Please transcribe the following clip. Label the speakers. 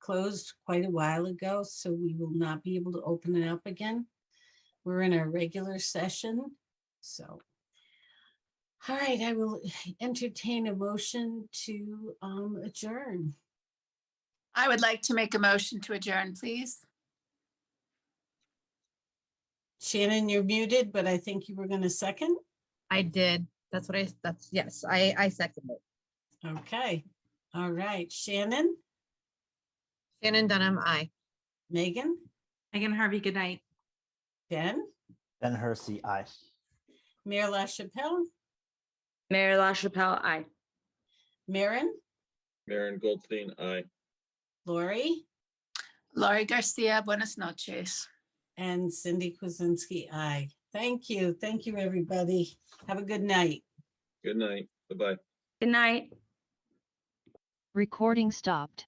Speaker 1: closed quite a while ago, so we will not be able to open it up again. We're in our regular session, so. All right, I will entertain a motion to um, adjourn.
Speaker 2: I would like to make a motion to adjourn, please.
Speaker 1: Shannon, you're muted, but I think you were going to second.
Speaker 3: I did. That's what I, that's, yes, I, I second it.
Speaker 1: Okay, all right, Shannon,
Speaker 3: Shannon Dunham, I.
Speaker 1: Megan,
Speaker 4: Megan Harvey, good night.
Speaker 1: Ben,
Speaker 5: Ben Hersey, aye.
Speaker 1: Mayor LaChapelle,
Speaker 6: Mayor LaChapelle, aye.
Speaker 1: Maren,
Speaker 7: Maren Goldstein, aye.
Speaker 1: Lori,
Speaker 2: Laurie Garcia, buenas noches.
Speaker 1: and Cindy Kuzensky, aye. Thank you, thank you, everybody. Have a good night.
Speaker 7: Good night. Bye-bye.
Speaker 6: Good night.
Speaker 8: Recording stopped.